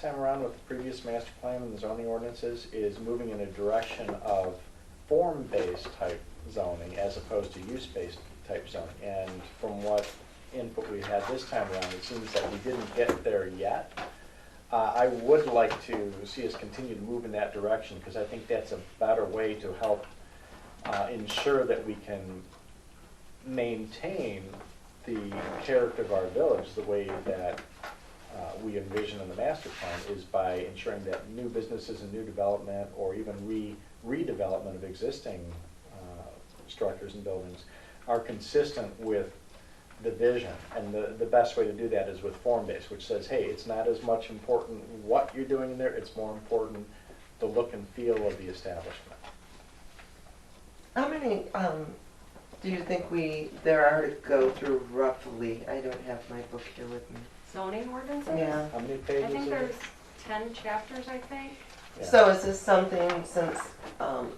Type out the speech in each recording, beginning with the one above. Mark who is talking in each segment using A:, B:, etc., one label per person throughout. A: time around with the previous master plan and the zoning ordinances is moving in a direction of form-based type zoning as opposed to use-based type zoning. And from what input we had this time around, it seems that we didn't get there yet. Uh, I would like to see us continue to move in that direction because I think that's a better way to help uh, ensure that we can maintain the character of our village the way that uh, we envision in the master plan is by ensuring that new businesses and new development, or even re- redevelopment of existing uh, structures and buildings, are consistent with the vision. And the, the best way to do that is with form-based, which says, hey, it's not as much important what you're doing in there, it's more important the look and feel of the establishment.
B: How many, um, do you think we, there are to go through roughly? I don't have my book here with me.
C: zoning ordinances?
B: Yeah.
A: How many
C: I
A: pages is
C: think there's
A: it?
C: ten chapters, I think.
A: Yeah.
B: So is this something since, um,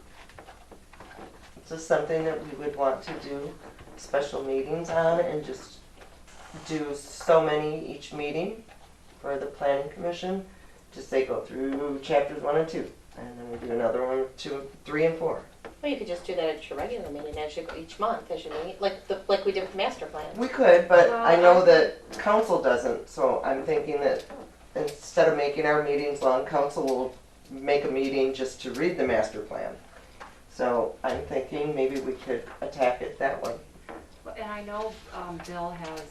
B: is this something that we would want to do special meetings on and just do so many each meeting for the planning commission? Just say go through chapters one and two, and then we do another one, two, three and four.
D: Well, you could just do that at your regular meeting as you go each month as you meet, like the like we did with master plan.
B: We could, but I know
C: Well, I-
B: that council doesn't, so I'm thinking that instead of making our meetings long, council will make a meeting just to read the master plan. So I'm thinking maybe we could attack it that way.
C: And I know um, Bill has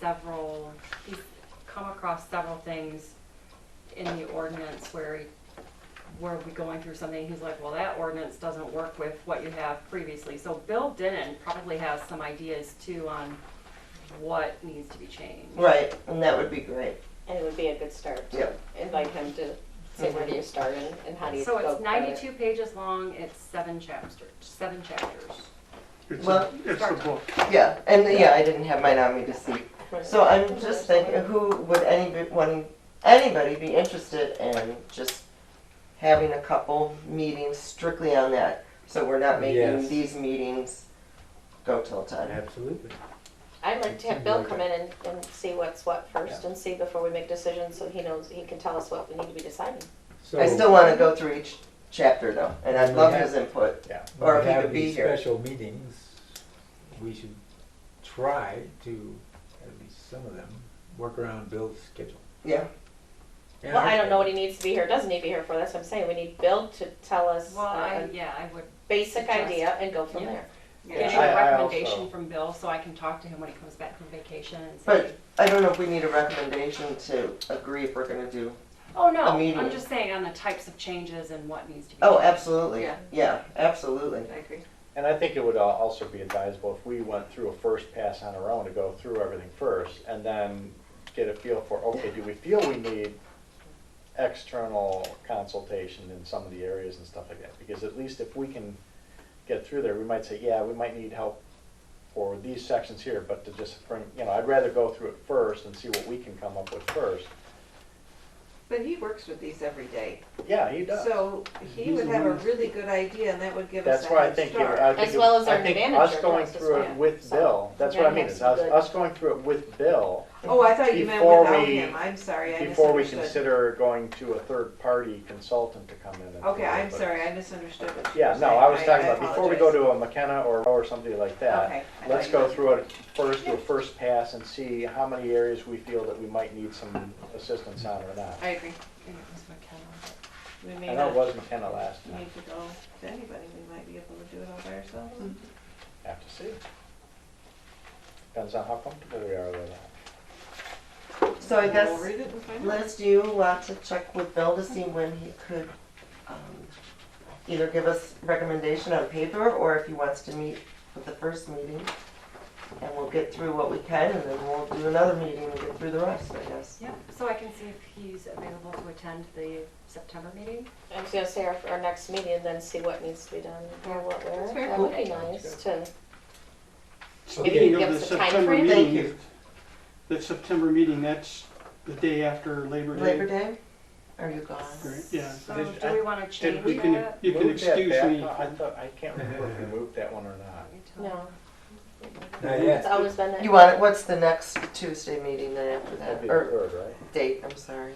C: several, he's come across several things in the ordinance where he, where we going through something, he's like, well, that ordinance doesn't work with what you have previously. So Bill Denon probably has some ideas too on what needs to be changed.
B: Right, and that would be great.
D: And it would be a good start to
B: Yep.
D: invite him to say where do you start and, and how do you go.
C: So it's
D: about it.
C: ninety-two pages long, it's seven chapters, seven chapters.
E: It's,
B: Well-
E: a, it's the book.
B: Yeah, and yeah, I didn't have mine on me to see.
D: Right.
B: So I'm just thinking, who would anyone, anybody be interested in just having a couple meetings strictly on that? So we're not making
F: Yes.
B: these meetings go till ten.
F: Absolutely.
D: I'd like to have
F: Seems
D: Bill
F: like
D: come in and, and see what's what first and see before we make decisions, so he knows, he can tell us what we need to be deciding.
B: I still wanna go through each chapter though, and I'd
F: We
B: love
F: have-
B: his input.
A: Yeah.
B: or if he could be here.
F: When we have these special meetings, we should try to, at least some of them, work around Bill's schedule.
B: Yeah,
D: Well, I don't know what he needs to be here, doesn't need to be here for, that's what I'm saying, we need Bill to tell us
C: Well, I,
D: a
C: yeah, I would
D: basic
C: suggest-
D: idea and go from
C: Yeah.
D: there.
C: Get
A: I-
C: a
A: I
C: recommendation
A: also-
C: from Bill so I can talk to him when he comes back from vacation and say,
B: but I don't know if we need a recommendation to agree if we're gonna do.
C: oh no,
B: a meeting.
C: I'm just saying on the types of changes and what needs to be.
B: Oh,
C: changed."
B: absolutely,
C: Yeah.
B: yeah, absolutely.
C: I agree.
A: And I think it would al- also be advisable if we went through a first pass on our own to go through everything first and then get a feel for, okay, do we feel we need external consultation in some of the areas and stuff like that? Because at least if we can get through there, we might say, yeah, we might need help for these sections here, but to just bring, you know, I'd rather go through it first and see what we can come up with first.
G: But he works with these every day,
A: Yeah, he does.
G: so he
A: He's
G: would
A: the
G: have a
A: one who's-
G: really good idea, and that would give us
A: That's
G: a
A: why I
G: head
A: think, it-
G: start.
A: I think.
D: As
A: it-
D: well as
A: I
D: our
A: think
D: manager
A: Us going
D: helps us
A: through it
D: plan.
A: with
D: So,
A: Bill, that's what I
D: gotta
A: mean,
D: have
A: is
D: some
A: us,
D: good-
A: us going through it with Bill
G: Oh, I thought you meant
A: Before
G: without
A: we-
G: him, I'm sorry, I
A: before we
G: misunderstood.
A: consider going to a third-party consultant to come in and. do
G: Okay,
A: it,
G: I'm
A: but-
G: sorry, I misunderstood what you were
A: Yeah,
G: saying.
A: no, I was talking
G: I
A: about, before we go to
G: apologize.
A: a McKenna or, or somebody like
G: Okay,
A: that,
G: I
A: let's
G: thought you
A: go
G: meant-
A: through it first, do a first pass and see how many areas we feel that we might need some assistance on or not.
G: I uh, agree,
C: And it was McKenna.
G: we
A: I
G: may
A: know it
G: not
A: was McKenna last time,
G: need to go to anybody, we might be able to do it all by ourselves.
A: have to see. Depends on how comfortable we are with that.
B: So I guess.
G: We'll read it and find out.
B: Liz, do you want to check with Bill to see when he could um, either give us recommendation on paper or if he wants to meet with the first meeting? And we'll get through what we can and then we'll do another meeting and get through the rest, I guess.
C: Yeah, so I can see if he's available to attend the September meeting.
D: I was gonna say our, our next meeting, then see what needs to be done or what where.
G: That's very
D: That would be nice to. Maybe you
E: Speaking
D: give
E: of the
D: us a time
E: September
D: frame?
B: Thank
E: meeting, the September meeting, that's the day after Labor Day.
B: Labor Day? Are you gone?
E: Great, Yeah,
C: So
A: Did-
C: do we want to change
E: you can,
C: that?
E: you can
A: Move that
E: excuse
A: back.
E: me.
A: No, I thought, I can't remember if we moved that one or not.
D: No,
F: Not
D: it's
F: yet.
D: always been that.
B: You want it, what's the next Tuesday meeting then after
A: That'd
B: that?
A: be the
B: Or
A: third, right?
B: date, I'm sorry.